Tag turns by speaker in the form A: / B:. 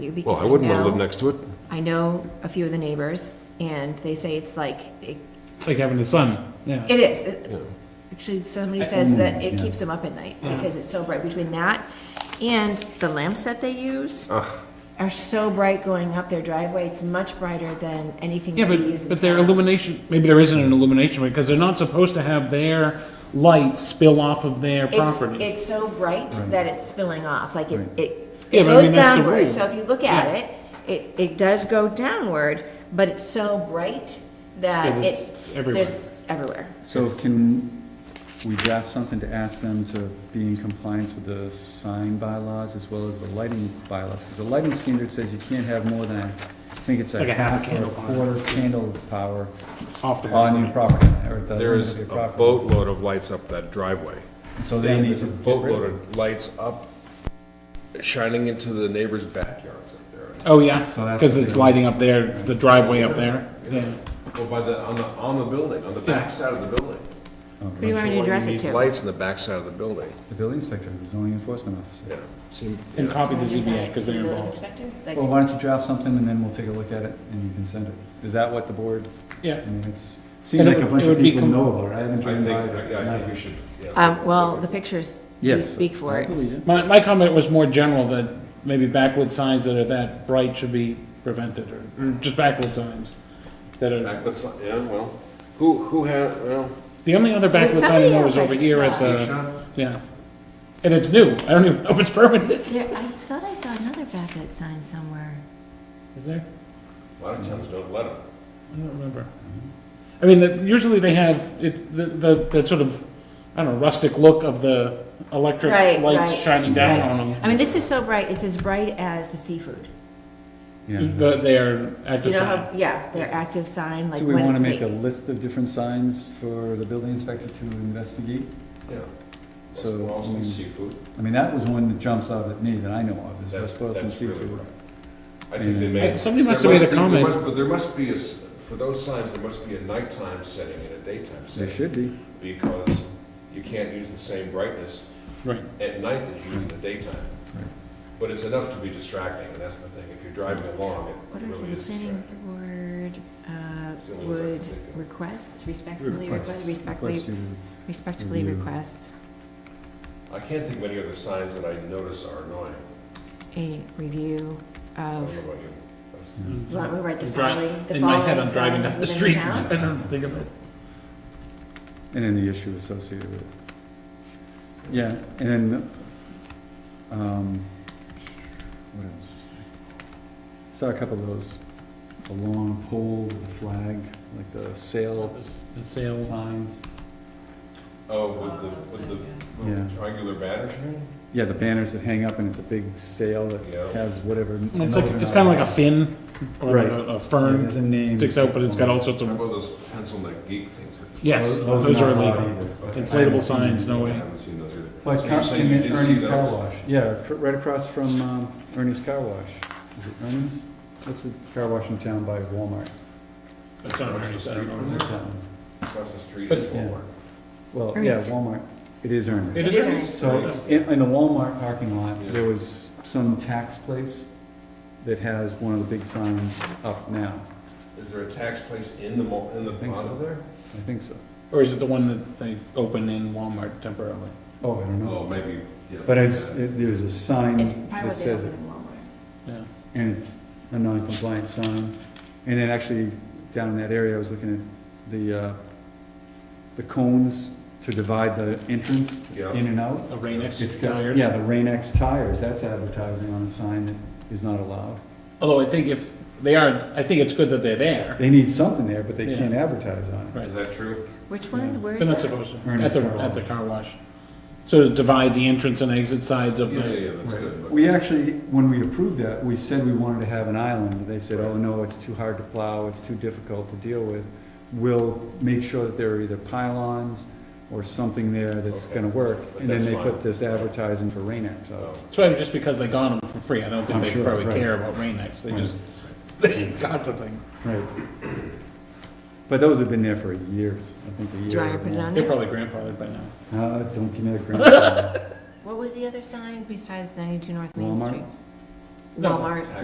A: you
B: Well,
A: because
B: I
A: I
B: wouldn't want to live
A: know,
B: next to it.
A: I know a few of the neighbors and they say it's like, it
C: It's like having a son, yeah.
A: it is. It-
B: Yeah.
A: Actually, somebody
C: I-
A: says that it
C: yeah.
A: keeps them up at night because it's so bright between that and the lamps that they use are so bright going up their driveway. It's much brighter than anything
C: Yeah,
A: that we use
C: but,
A: in
C: but their
A: town.
C: illumination, maybe there isn't an illumination, because they're not supposed to have their light spill off of their
A: It's,
C: property.
A: it's so bright that it's spilling off, like it,
C: Right.
A: it,
C: Yeah,
A: it
C: but I
A: goes
C: mean, that's the rule.
A: downward, so if you look at
C: Yeah.
A: it, it, it does go downward, but it's so bright that
C: It is
A: it's,
C: everywhere.
A: there's everywhere.
D: So can we draft something to ask them to be in compliance with the sign bylaws as well as the lighting bylaws? Because the lighting standard says you can't have more than, I think it's
C: Like
D: a
C: a half
D: half or a
C: candle power.
D: quarter candle power
C: Off their
D: on your
C: side.
D: property, or at the
B: There
D: limit
B: is
D: of
B: a
D: your property.
B: boatload of lights up that driveway.
D: So they need
B: There's
D: to
B: a
D: get rid
B: boatload
D: of it.
B: of lights up, shining into the neighbors' backyards up there.
C: Oh, yeah,
D: So that's
C: because
D: the
C: it's
D: big-
C: lighting up there, the driveway up there, yeah.
B: Well, Oh, by the, on the, on the building, on the
C: Yeah.
B: backside of the building.
A: What do you want me to address it to?
B: Lights in the backside of the building,
D: The building inspector, the zoning enforcement officer.
B: yeah. Seem-
C: And
B: yeah.
C: copy the
A: Just
C: ZBA,
A: like
C: because they're
A: the
C: involved.
A: inspector, like-
D: Well, why don't you draft something and then we'll take a look at it and you can send it? Is that what the board, I
C: Yeah,
D: mean, it's,
C: And
D: seems
C: it
D: like a
C: would-
D: bunch
C: it
D: of
C: would be
D: people
C: com-
D: know about it. I haven't
B: I
D: driven
B: think,
D: by
B: yeah, I think
D: it.
B: we should, yeah.
A: Um, well, the pictures do
D: Yes.
A: speak for it.
C: my, my comment was more general, that maybe backlit signs that are that bright should be prevented, or, or just backlit signs that are,
B: Back- that's- Yeah, well, who, who had, well,
C: the only other
A: There's
C: backlit sign I
A: somebody
C: know is
A: else I
C: over here at
A: saw.
C: the, yeah. And it's new, I don't even know if it's permanent.
A: There, I thought I saw another backlit sign somewhere.
C: Is there?
B: a lot of times don't let them.
C: I don't remember. I mean, that- usually they have, it, the, the, that sort of, I don't know, rustic look of the electric
A: Right,
C: lights
A: right,
C: shining down
A: right.
C: on
A: I mean, this is so bright, it's as bright as the seafood.
C: them. The, their
A: You
C: active
A: know
C: sign.
A: how, yeah, their active sign, like.
D: Do we
A: when
D: want to
A: they-
D: make a list of different signs for the building inspector to investigate?
B: Yeah.
D: So,
B: West
D: I
B: Boylston
D: mean-
B: Seafood,
D: I mean, that was one that jumps out at me that I know of, is
B: that's,
D: West Boylston
B: that's really
D: Seafood.
B: right. I think they
D: And-
B: made.
C: Hey, Somebody must have
B: There
C: made a
B: must be- there
C: comment,
B: must- But there must be, a s- for those signs, there must be a nighttime setting and a daytime
D: There
B: setting.
D: should be.
B: Because you can't use the same brightness
C: right,
B: at night that you use in the daytime.
D: Right.
B: But it's enough to be distracting, and that's the thing. If you're driving along,
A: What are
B: it really
A: the
B: is
A: planning
B: distracting.
A: board, uh,
B: It's the only ones I can
A: would
B: think of.
A: request, respectfully request,
D: Request- request
A: respectfully,
D: you-
A: respectfully
D: review.
A: request
B: I can't think of any other signs that I notice are annoying.
A: a review
B: I
A: of,
B: don't know about you. That's-
A: you want me to write the
C: Dri-
A: following, the
C: in my head,
A: following
C: I'm driving
A: signs
C: down
A: within
C: the
A: the
C: street,
A: town?
C: I don't think of it.
D: And then the issue associated with it. Yeah, and then, um, what else was there? Saw a couple of those, a long pole, with a flag, like the sail
C: The sale,
D: signs.
B: Oh, with the, with the little
D: Yeah.
B: triangular banners, you mean?
D: Yeah, the banners that hang up and it's a big sail that
B: Yeah.
D: has whatever.
C: it's like, it's kinda like a fin, or
D: Right.
C: a a
D: Yeah,
C: fern
D: There's a name.
C: sticks out, but it's got all sorts
B: How
C: of,
B: about those pencil neck geek things? that-
C: yes,
D: Those-
C: those are
D: not allowed
C: illegal.
D: either.
B: Okay.
C: Inflatable signs, no
B: I
C: way.
B: haven't seen those either.
D: Like
B: So you're
D: Car-
B: saying you
D: in
B: did see
D: Ernie's
B: those?
D: Car Wash, yeah, tr- right across from um, Ernie's Car Wash. Is it Ernie's? What's the car wash in town by Walmart?
C: That's not
B: What's
C: very-
B: the
C: I don't
B: street
C: know.
B: from
D: What's that one?
B: Across the street
C: But-
B: is
D: Yeah.
B: Walmart.
D: Well, yeah,
A: Ernie's.
D: Walmart, it is Ernie's.
C: It
A: It
C: is
A: is
C: Ernie's.
A: Ernie's.
D: So, in, in the Walmart parking lot,
B: Yeah.
D: there was some tax place that has one of the big signs up now.
B: Is there a tax place in the, mall- in the
D: think so.
B: plaza there?
D: I think so.
C: Or is it the one that they open in Walmart temporarily?
D: Oh, I don't
B: Oh,
D: know.
B: maybe, yeah.
D: But it's, it- there's a sign
A: It's probably
D: that
A: what they
D: says it.
A: open in Walmart.
C: Yeah.
D: and it's a non-compliant sign. And then actually, down in that area, I was looking at the, uh, the cones to divide the entrance
B: Yeah.
D: in and out.
C: The rain X
D: It's got,
C: tires?
D: yeah, the Rain-X tires, that's advertising on a sign that is not allowed.
C: Although I think if, they are, I think it's good that they're there.
D: They need something there, but they
C: Yeah.
D: can't advertise on it.
C: Right.
B: Is that true?
A: Which
D: Yeah.
A: one, where
C: They're not
A: is that?
C: supposed to, at
D: Ernest
C: the,
D: Car Wash.
C: at the car wash. So to divide the entrance and exit sides of
B: Yeah, yeah,
C: the,
B: yeah, that's good. but-
D: We actually, when we approved that, we said we wanted to have an island, but they said, oh, no, it's too hard to plow, it's too difficult to deal with. We'll make sure that there are either pylons or something there that's
B: Okay.
D: gonna work.
B: But
D: And then
B: that's
D: they put
B: fine.
D: this advertising for Rain-X
B: Oh,
D: out.
C: it's probably just because they got them for free, I don't think
D: I'm
C: they
D: sure,
C: probably
D: right.
C: care about rain X, they
D: Right.
C: just, they got the thing.
B: Oh.
D: Right. But those have been there for years, I think a year.
A: Do I
D: or
A: put it
D: more.
A: on
C: They're
A: there?
C: probably grandfathered by now.
D: Uh, don't give me that grandfather.
A: What was the other sign besides ninety-two North Main
D: Walmart?
A: Street?
C: No,
A: Walmart.